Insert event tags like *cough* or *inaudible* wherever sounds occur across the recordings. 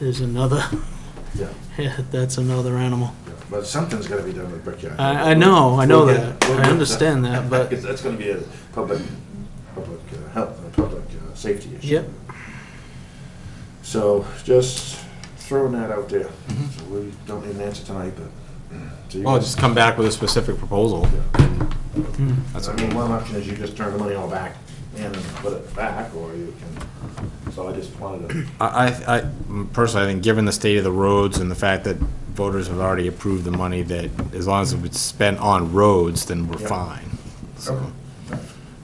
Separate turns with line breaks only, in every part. is another, *laughs*
Yeah,
that's another *laughs* animal.
yeah. But something's gotta be done with Brickyard.
I, I know, I know
We'll
that,
get- we'll
I
get
understand that, but,
Because *laughs* That's gonna be a public, public uh, health, a public uh, safety issue.
Yep.
So just throwing that out there.
Mm-hmm.
So We don't need an answer tonight, but. *clears throat* so you
Well,
guys-
Oh, just come back with a specific proposal.
Yeah.
hmm,
That's
I
okay.
mean, one option is you just turn the money all back in and put it back, or you can, so I just wanted to.
I, I, I- personally, I think, given the state of the roads and the fact that voters have already approved the money, that as long as it's spent on roads, then we're
Yep.
fine. So,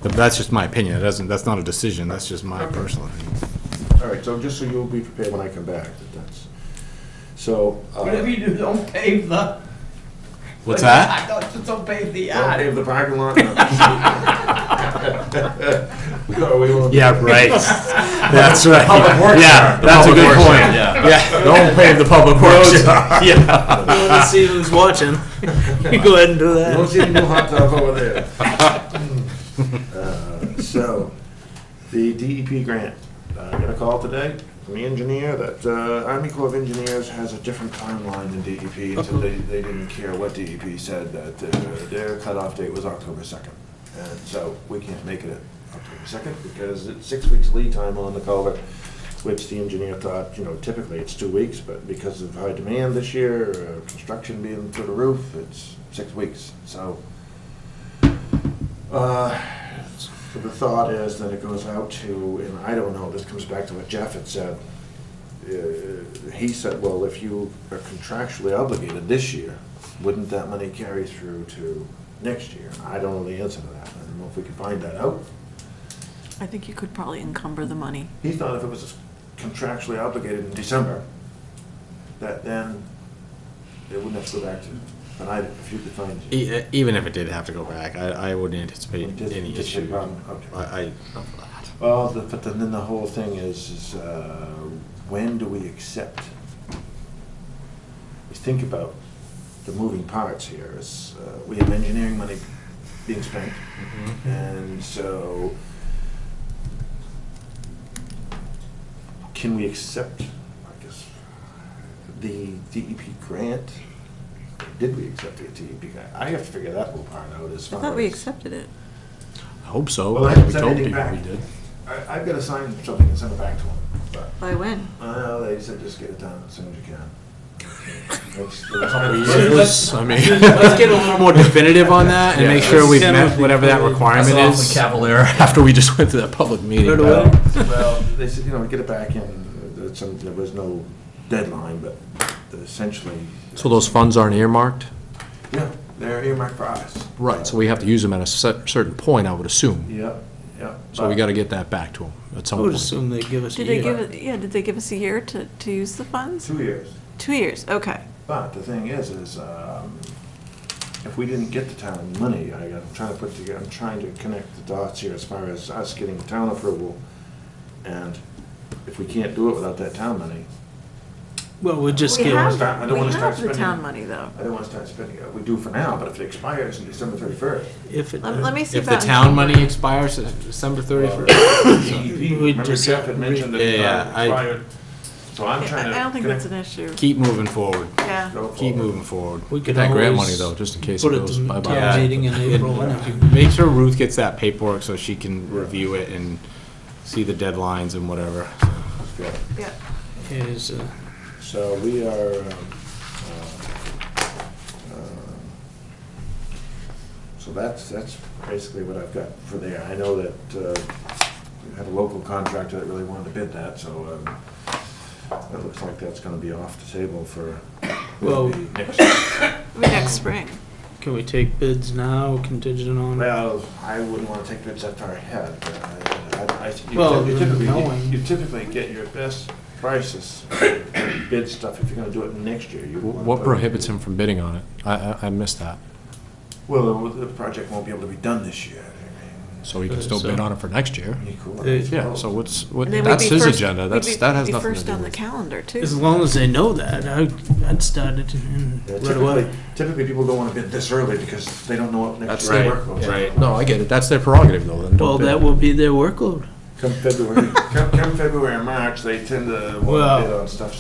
but that's just my opinion, it doesn't, that's not a decision, that's just my personal opinion.
All right, so just so you'll be prepared when I come back, that that's, so. uh,
Whatever you do, don't pave the.
What's that?
Don't- Just don't pave the
Don't
yard.
pave the parking lot. No, we won't.
*laughs* Yeah, right. That's right.
Public works
Yeah,
yard.
that's a
Public
good
works
point.
yard,
Yeah, don't pave the public works. yard. *laughs* Yeah.
let's see who's watching, *laughs* you go ahead and do
You don't
that.
see any new hot tub over
*laughs*
there. Uh, So, the DEP grant, uh, I got a call today from the engineer that uh, Army Corps of Engineers has a different timeline than E DEP until they, they didn't care what DEP said, that their- their cutoff date was October 2nd. And so, we can't make it October 2nd because it's six weeks lead time on the culvert, which the engineer thought, you know, typically it's two weeks, but because of high demand this year, uh, construction being through the roof, it's six weeks. So, uh, so The thought is that it goes out to, and I don't know, this comes back to what Jeff had said. Uh, He said, well, if you are contractually obligated this year, wouldn't that money carry through to next year? I don't know the answer to that. I don't know if we can find that out.
I think you could probably encumber the money.
He thought if it was contractually obligated in December, that then it wouldn't have to go back to, but I, if you could find.
E- Even if it did have to go back, I, I wouldn't anticipate
Just-
any
just
issue.
run, okay.
I, I,
Well, the, but then, then the whole thing is, is uh, when do we accept? We think about the moving parts here. Is uh, we have engineering money being spent, and so can we accept? I guess the DEP grant. Did we accept the DEP grant? I have to figure that whole part out. As
I
far
thought we
as-
accepted it.
I hope so.
Well, I
We
haven't sent
told
anything
people
back.
we did.
I, I've got to sign something and send it back to him. But
By when?
Well, they said just get it done as soon as you can. That's-
It
that's-
was- I mean, *laughs* let's get a little more definitive on that and make sure we've
Yeah.
met whatever that requirement is. Cavalier. *laughs* After we just went to that public meeting.
Right away.
Well, they said, you know, get it back in, there's some, there was no deadline, but essentially.
So those funds aren't earmarked?
Yeah, they're earmarked for us.
Right, so we have to use them at a cer- certain point, I would assume.
Yep, yep.
So we gotta get that back to them at
Uh, I
some
would
point.
assume they give us a
Did they give,
year.
it? yeah, did they give us a year to, to use the funds?
Two years.
Two years, okay.
But the thing is, is um, if we didn't get the town money, I, I'm trying to put together, I'm trying to connect the dots here as far as us getting town approval. And if we can't do it without that town money,
Well, we'll just
We
give,
have-
I don't wanna
We
start
have the
spending.
town money, though.
I don't want to start spending it. We do for now, but if it expires in December thirty-first.
if it,
Let let me see
If
about.
the town money expires uh, December thirty-first.
We
Remember
just-
Jeff had mentioned that
Yeah,
it
yeah, I-
expired. So I'm
Yeah,
trying to.
I I don't think that's an
connect-
issue,
Keep moving forward.
yeah.
go
Keep
forward.
moving forward.
we
Get
could
that grant money
always
though, just in case it
put it
goes
to the
bye-bye.
Yeah.
town meeting in April, whenever you
*laughs*
Make sure Ruth gets that paperwork so she can review it and see the deadlines and whatever.
Yeah.
Yeah.
is, uh,
So we are, um, uh, um, so that's, that's basically what I've got for there. I know that uh, we had a local contractor that really wanted to bid that, so um, it looks like that's going to be off the table for
Well-
maybe next.
Maybe next spring.
can we take bids now contingent on?
Well, I wouldn't want to take bids that far ahead. but uh, I- I- I- you
Well,
typ- you typically- you-
knowing-
You typically get your best prices, bid stuff, if you're going to do it next year. you
Wh-
wanna
What
put-
prohibits him from bidding on it? I, I, I missed that.
Well, the the project won't be able to be done this year. I
So he can still bid on it for next year.
mean, be cool.
They-
Yeah, so what's, what,
And then we'd
that's
be
his
first-
agenda,
we'd
that's,
be-
that has
be
nothing to do
First on the
with.
calendar,
As
too.
long as they know that, I, I'd start it in
Yeah,
right away.
Typically, typically people don't want to bid this early because they don't know what next
That's
year's
right,
workload is.
right.
No, I get it, that's their prerogative though, then
Well,
don't
that
bid.
will be their workload.
Come February, come, come February and March, they tend to
Well-
want to bid on stuff